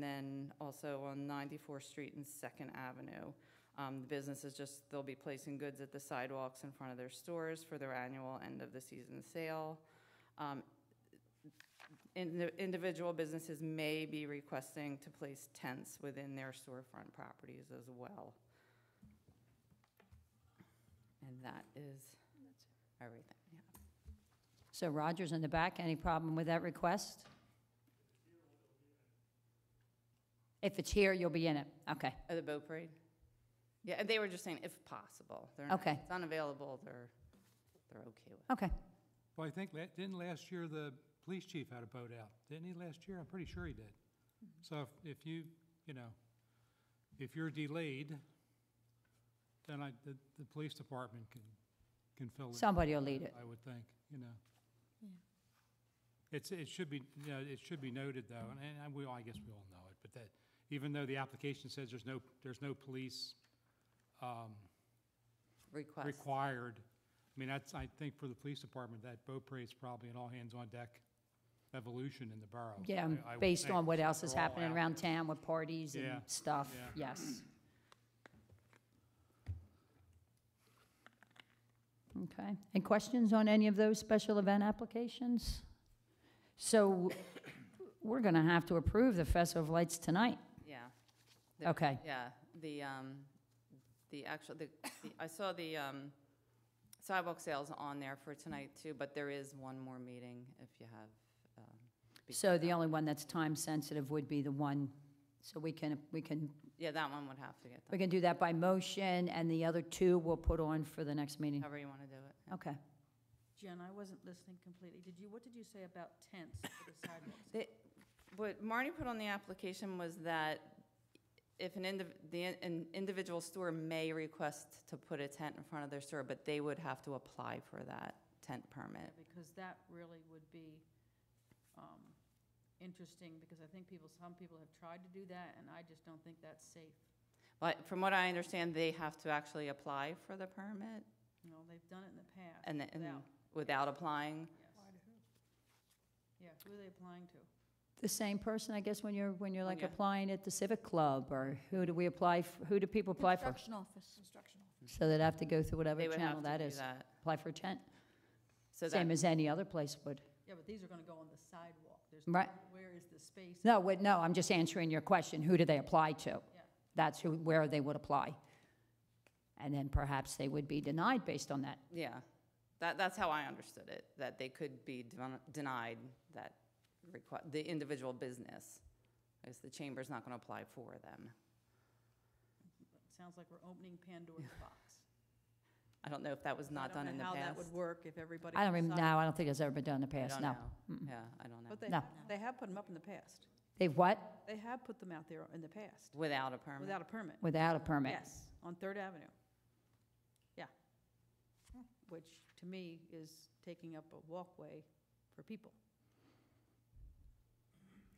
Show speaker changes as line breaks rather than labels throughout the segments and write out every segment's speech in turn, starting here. then also on 94th Street and Second Avenue. Um, The businesses just, they'll be placing goods at the sidewalks in front of their stores for their annual end-of-the-season sale. Um, in- the Individual businesses may be requesting to place tents within their storefront properties as well. And that is everything, yeah.
So Roger's in the back, any problem with that request? If it's here, you'll be in it, okay.
Oh, the boat parade? Yeah, and they were just saying if possible. They're not-
Okay.
If it's unavailable, they're, they're okay with it.
Okay,
Well, I think, la- didn't last year the police chief had a boat out? Didn't he last year? I'm pretty sure he did.
Mm-hmm.
So if- if you, you know, if you're delayed, then I, the, the police department can, can fill it.
somebody will lead it.
I would think, you know. It's, it should be, you know, it should be noted though, and, and we all, I guess we all know it, but that, even though the application says there's no, there's no police, um,
Request.
required. I mean, that's, I think for the police department, that boat parade's probably an all-hands-on-deck evolution in the borough.
Yeah, and
I- I would
based
think,
on what
since
else is
they're all
happening
out
around
there.
town with parties and
Yeah,
stuff,
yeah.
yes. Okay, and questions on any of those special event applications? So we're going to have to approve the Festival of Lights tonight.
Yeah. There-
Okay,
Yeah, the, um, the actual, the, the- I saw the, um, sidewalk sales on there for tonight too, but there is one more meeting if you have, um. beat
so
that
the
up.
only one that's time-sensitive would be the one, so we can, we can,
Yeah, that one would have to get
we
done,
can do that by motion, and the other two we'll put on for the next meeting.
however you want to do it.
Okay.
Jen, I wasn't listening completely. Did you, what did you say about tents for the sidewalks?
They- What Marty put on the application was that if an indiv, the, in- an individual store may request to put a tent in front of their store, but they would have to apply for that tent permit.
Because that really would be um, interesting, because I think people, some people have tried to do that, and I just don't think that's safe.
But from what I understand, they have to actually apply for the permit
You know, they've done it in the past.
and, the- and
without,
without applying.
yes. Yeah, who are they applying to?
The same person, I guess, when you're, when you're like
Yeah.
applying at the civic club, or who do we apply, f- who do people apply for?
Construction office. Construction office.
So they'd have to go through whatever
They would
channel
have to
that
do
is.
that.
Apply for a tent,
So
same
that,
as any other place would.
Yeah, but these are gonna go on the sidewalk. There's,
Right.
where is the space?
No, wait, no, I'm just answering your question, who do they apply to?
Yeah.
That's who, where they would apply. And then perhaps they would be denied based on that.
yeah, that, that's how I understood it, that they could be den- denied that requ, the individual business. Because the chamber's not going to apply for them.
Sounds like we're opening Pandora's box.
I don't know if that was not done in the
I
past.
don't know how that would work if everybody.
I don't even, no,
decided-
I don't think it's ever been done in the
I
past,
don't
no.
know. Yeah, I don't know.
But they,
No.
they have put them up in the past.
They've what?
They have put them out there in the past
Without a permit?
without a permit.
Without a permit.
Yes, on Third Avenue. Yeah. Which, to me, is taking up a walkway for people.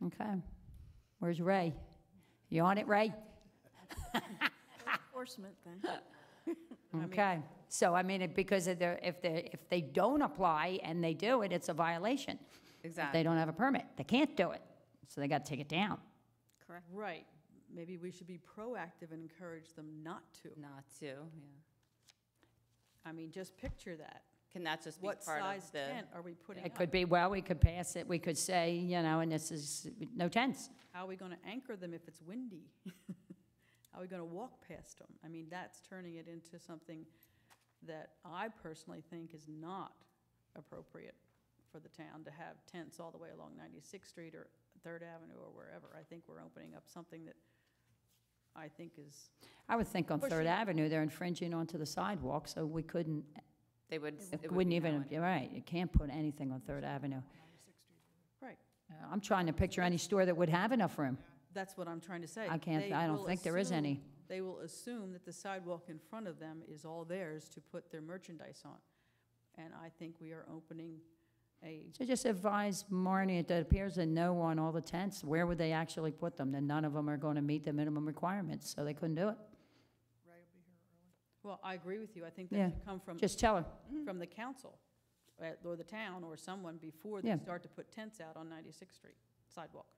Okay. Where's Ray? You on it, Ray?
Enforcement thing.
mean-
Okay, so I mean, it- because if they're, if they, if they don't apply and they do it, it's a violation. If
Exactly.
they don't have a permit, they can't do it, so they gotta take it down.
Correct.
Right, maybe we should be proactive and encourage them not to.
Not to, yeah.
I mean, just picture that.
Can that just be part
What
of the?
size tent are we putting
It
up?
could be, well, we could pass it, we could say, you know, and this is, no tents.
How are we gonna anchor them if it's windy? How are we gonna walk past them? I mean, that's turning it into something that I personally think is not appropriate for the town to have tents all the way along 96th Street or Third Avenue or wherever. I think we're opening up something that I think is,
I would think on Third
Pushing.
Avenue, they're infringing onto the sidewalk, so we couldn't,
They would. it would
wouldn't
be
even,
going-
you're right, you can't put anything on Third Avenue.
right,
Uh, I'm trying to picture any store that would have enough room.
that's what I'm trying to say.
I can't,
They
I don't
will
think there is
assume-
any.
They will assume that the sidewalk in front of them is all theirs to put their merchandise on. And I think we are opening a
So just advise Marnie, it appears that no on all the tents, where would they actually put them? Then none of them are going to meet the minimum requirements, so they couldn't do it.
Well, I agree with you. I think
Yeah,
that should come from,
Just tell her.
from the council, uh, or the town, or someone before they
Yeah.
start to put tents out on 96th Street sidewalk.